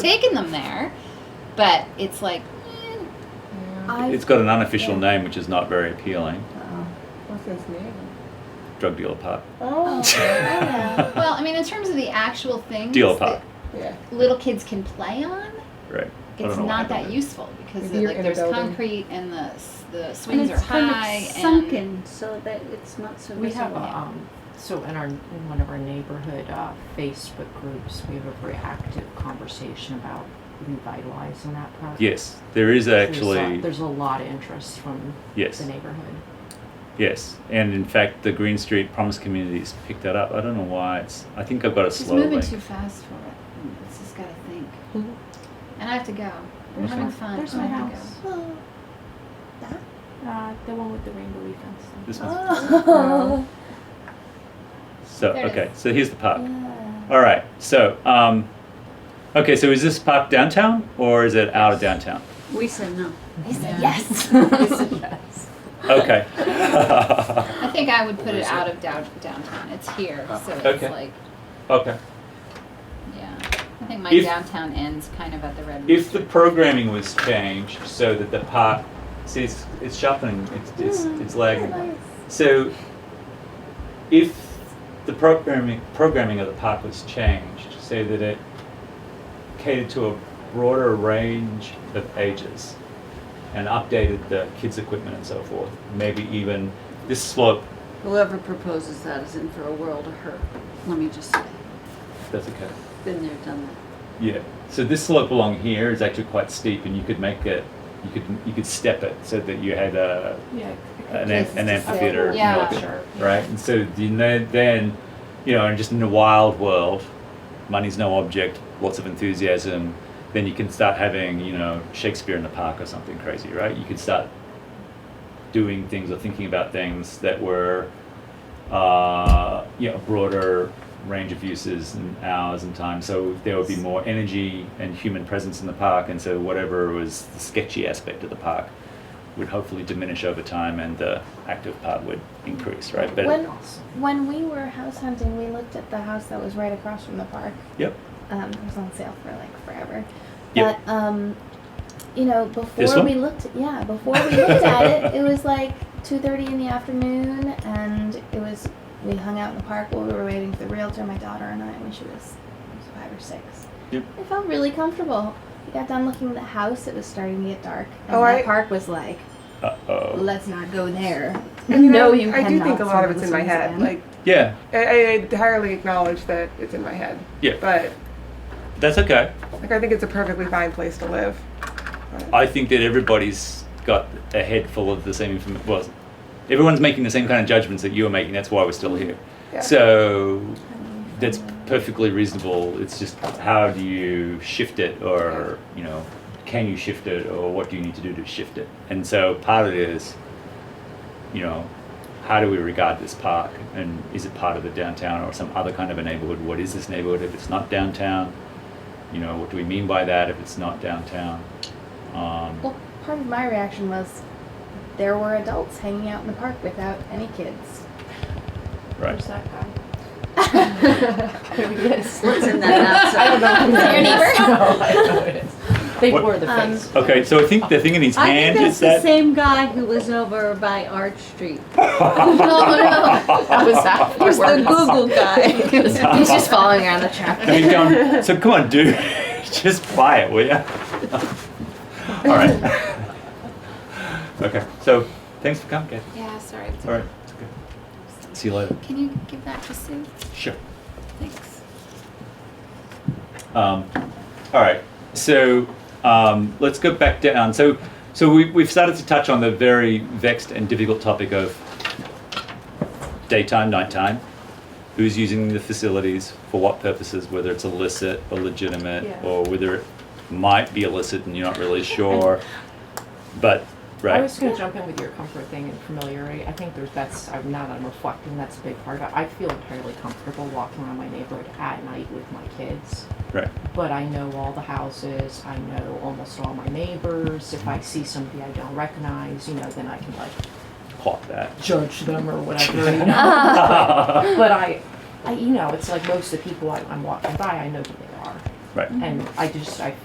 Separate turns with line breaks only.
taken them there, but it's like, eh,
I,
It's got an unofficial name which is not very appealing.
what's his name?
Drug dealer pub.
Oh, yeah.
eh, well, I mean, in terms of the actual things
Dealer
that
pub.
yeah.
little kids can play on,
Right. I
it's
don't know why I
not
don't
that
do it.
useful because
If
the,
you're
like
in a
there's
building.
concrete and the s- the
And
swings
it's
are
kind of
high and
sunken so that it's not so
We have,
visible.
a, um, so in our, in one of our neighborhood, uh, Facebook groups, we have a very active conversation about revitalizing that park.
Yes, there is
There's a-
actually,
There's a lot of interest from
yes,
the neighborhood.
yes. And in fact, the Green Street Promise Community's picked that up. I don't know why it's, I think I've got it
She's
slowly.
moving too fast for it. Hmm, It's just gotta think.
Mhm.
And I have to go. We're
That's
having
fine.
fun.
There's
I
my
have to
house.
Oh.
Uh, the one with the rainbow fence.
This one's,
Oh.
so,
There it
okay, so here's the park.
Yeah.
All right, so, um, okay, so is this park downtown or is it out of downtown?
We said no.
go. He said yes.
Okay.
I think I would put
Where
it
is
out of down- downtown. It's here,
Ah,
so it's
okay.
like,
Okay.
yeah. I think my
If-
downtown ends kind of at the red.
If the
rooster.
programming was changed so that the park, see, it's, it's shuffling, it's, it's, it's lagging. So, if the programming programming of the park was changed so that it catered to a broader range of ages and updated the kids' equipment and so forth, maybe even this slope.
Whoever proposes that is in for a world of hurt. Let me just say,
That's okay.
been there, done that.
Yeah. So this slope along here is actually quite steep, and you could make it. You could you could step it so that you had a
Yeah.
an,
Yes,
am- an
it's a
amphitheater,
slope.
you know,
Yeah.
like a- right? And so you know, then, you know, and just in the wild world, money's no object, lots of enthusiasm. Then you can start having, you know, Shakespeare in the park or something crazy, right? You could start doing things or thinking about things that were, uh, you know, broader range of uses and hours and time. So there would be more energy and human presence in the park, and so whatever was the sketchy aspect of the park would hopefully diminish over time, and the active part would increase, right? But
When- When we were house hunting, we looked at the house that was right across from the park.
yep,
Um, it was on sale for like forever.
Yep.
But um, you know,
This
before
one?
we looked, yeah, before we looked at it, it was like two thirty in the afternoon, and it was we hung out in the park while we were waiting for the realtor, my daughter and I, when she was, five or six.
Yep.
I felt really comfortable. We got done looking at the house. It was starting to get dark, and
Oh,
the
I-
park was like,
uh oh,
"Let's not go there."
And, you
no,
know,
you
I do
cannot
think a lot of
swim
it's
the
in my
swim
head.
lane.
Like
yeah,
I, I entirely acknowledge that it's in my head.
Yeah.
But
that's okay.
like I think it's a perfectly fine place to live.
I think that everybody's got a head full of the same information. Well, everyone's making the same kind of judgments that you are making. That's why we're still here.
Yeah.
So that's perfectly reasonable. It's just how do you shift it, or you know, can you shift it, or what do you need to do to shift it? And so part of it is, you know, how do we regard this park, and is it part of the downtown or some other kind of a neighborhood? What is this neighborhood if it's not downtown? You know, what do we mean by that if it's not downtown? Um,
Well, part of my reaction was there were adults hanging out in the park without any kids.
right.
that guy?
What's in that
I don't
outside?
know.
that your neighbor?
They
What-
wore the
Um,
face.
Okay, so I think the thing in his
I
hand
think
is
that's
that.
the same guy who was over by Arch Street.
That was that.
It was the Google guy.
He's just following around the track.
I mean, John, so come on, dude, just buy it, will ya? All right. okay, so thanks for coming, Kathy.
Yeah, sorry. it's
All right, it's okay. See you later.
Can you give that to Sue?
Sure.
Thanks.
Um, all right, so um, let's go back down. So, so we, we've started to touch on the very vexed and difficult topic of daytime, nighttime. Who's using the facilities for what purposes? Whether it's illicit or legitimate,
Yeah.
or whether it might be illicit and you're not really sure. But right,
I was going to jump in with your comfort thing and familiarity. I think there's that's I'm not I'm reflecting. That's a big part. of it. I feel entirely comfortable walking around my neighborhood at night with my kids.
right,
but I know all the houses, I know almost all my neighbors. If I see somebody I don't recognize, you know, then I can like
clock that.
judge them or whatever, you know. but I, I, you know, it's like most of the people I, I'm walking by, I know who they are.
Right.
And I just, I